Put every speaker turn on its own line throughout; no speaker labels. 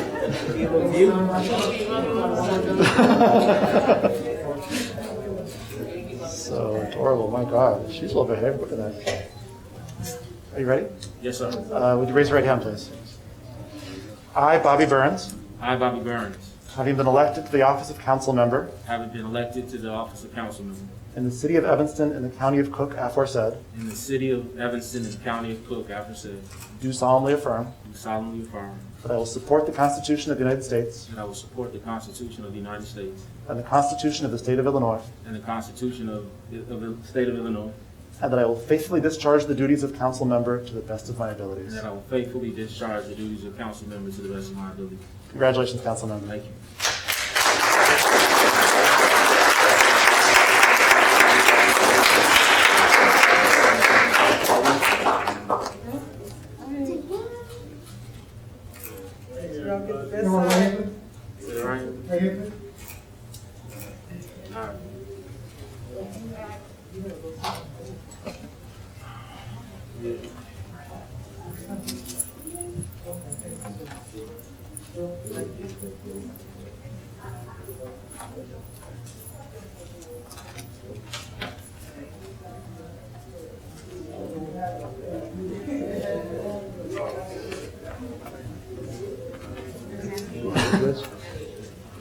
Field of view.
So adorable, my God. She's a little bit heavy, look at that. Are you ready?
Yes, sir.
Uh, Would you raise your right hand, please? I, Bobby Burns,
I, Bobby Burns,
having been elected to the office of council member
having been elected to the office of councilman
in the city of Evanston in the county of Cook aforesaid,
in the city of Evanston and county of Cook, aforesaid,
do solemnly affirm
do solemnly affirm
that I will support the Constitution of the United States
that I will support the Constitution of the United States
and the Constitution of the state of Illinois,
and the Constitution of, of the state of Illinois,
and that I will faithfully discharge the duties of council member to the best of my
and
abilities.
that I will faithfully discharge the duties of council member to the best of my ability.
Congratulations, council member.
Thank you.
You want to leave it?
Is that all right?
Leave it?
All right.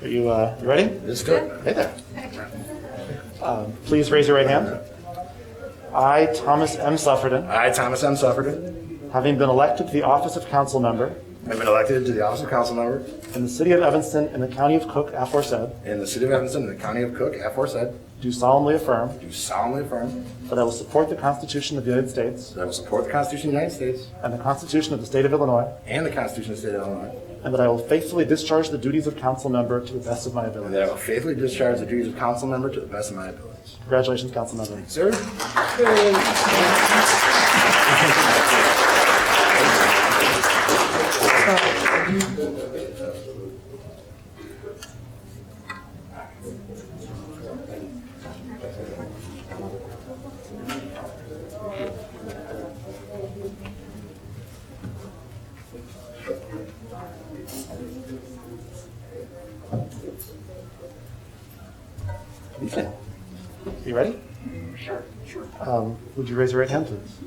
Are you, uh, you ready?
Let's go.
Hey there. Um, Please raise your right hand. I, Thomas M. Sufferton,
I, Thomas M. Sufferton,
having been elected to the office of council member
have been elected to the office of council member
in the city of Evanston in the county of Cook aforesaid,
in the city of Evanston in the county of Cook, aforesaid,
do solemnly affirm
do solemnly affirm
that I will support the Constitution of the United States
that I will support the Constitution of the United States
and the Constitution of the state of Illinois,
and the Constitution of the state of Illinois,
and that I will faithfully discharge the duties of council member to the best of my
and that I
ability.
will faithfully discharge the duties of council member to the best of my abilities.
Congratulations, council member.
Sir?
You ready? Sure. Would you raise your right hand, please?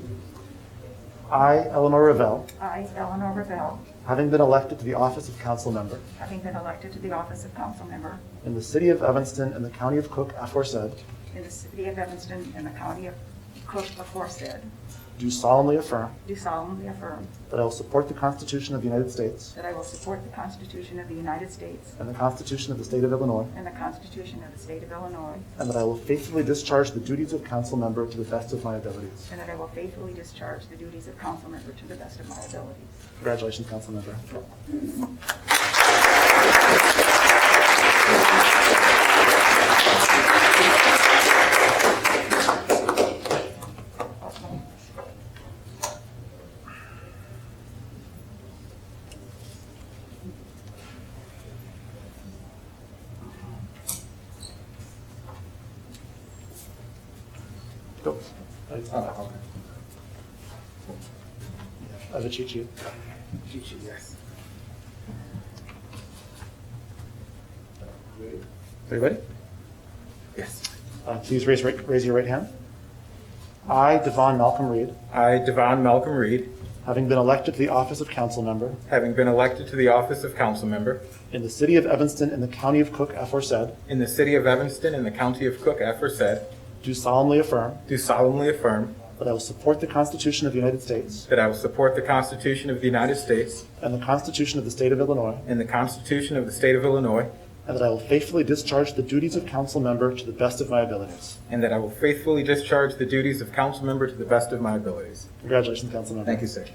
I, Eleanor Revelle,
I, Eleanor Revelle,
having been elected to the office of council member
having been elected to the office of council member
in the city of Evanston and the county of Cook aforesaid,
in the city of Evanston and the county of Cook aforesaid,
do solemnly affirm
do solemnly affirm
that I will support the Constitution of the United States
that I will support the Constitution of the United States
and the Constitution of the State of Illinois,
and the Constitution of the state of Illinois,
and that I will faithfully discharge the duties of council member to the best of my abilities.
and that I will faithfully discharge the duties of council member to the best of my ability.
Congratulations, council member. Go. I have a cheat sheet. Are you ready?
Yes.
Uh, Please raise, right- raise your right hand. I, Devon Malcolm Reed,
I, Devon Malcolm Reed,
having been elected to the office of council member
having been elected to the office of council member
in the city of Evanston in the county of Cook aforesaid,
in the city of Evanston in the county of Cook, aforesaid,
do solemnly affirm
do solemnly affirm
that I will support the Constitution of the United States
that I will support the Constitution of the United States
and the Constitution of the state of Illinois,
and the Constitution of the state of Illinois,
and that I will faithfully discharge the duties of council member to the best of my abilities.
and that I will faithfully discharge the duties of council member to the best of my abilities.
Congratulations, council member.
Thank you, sir.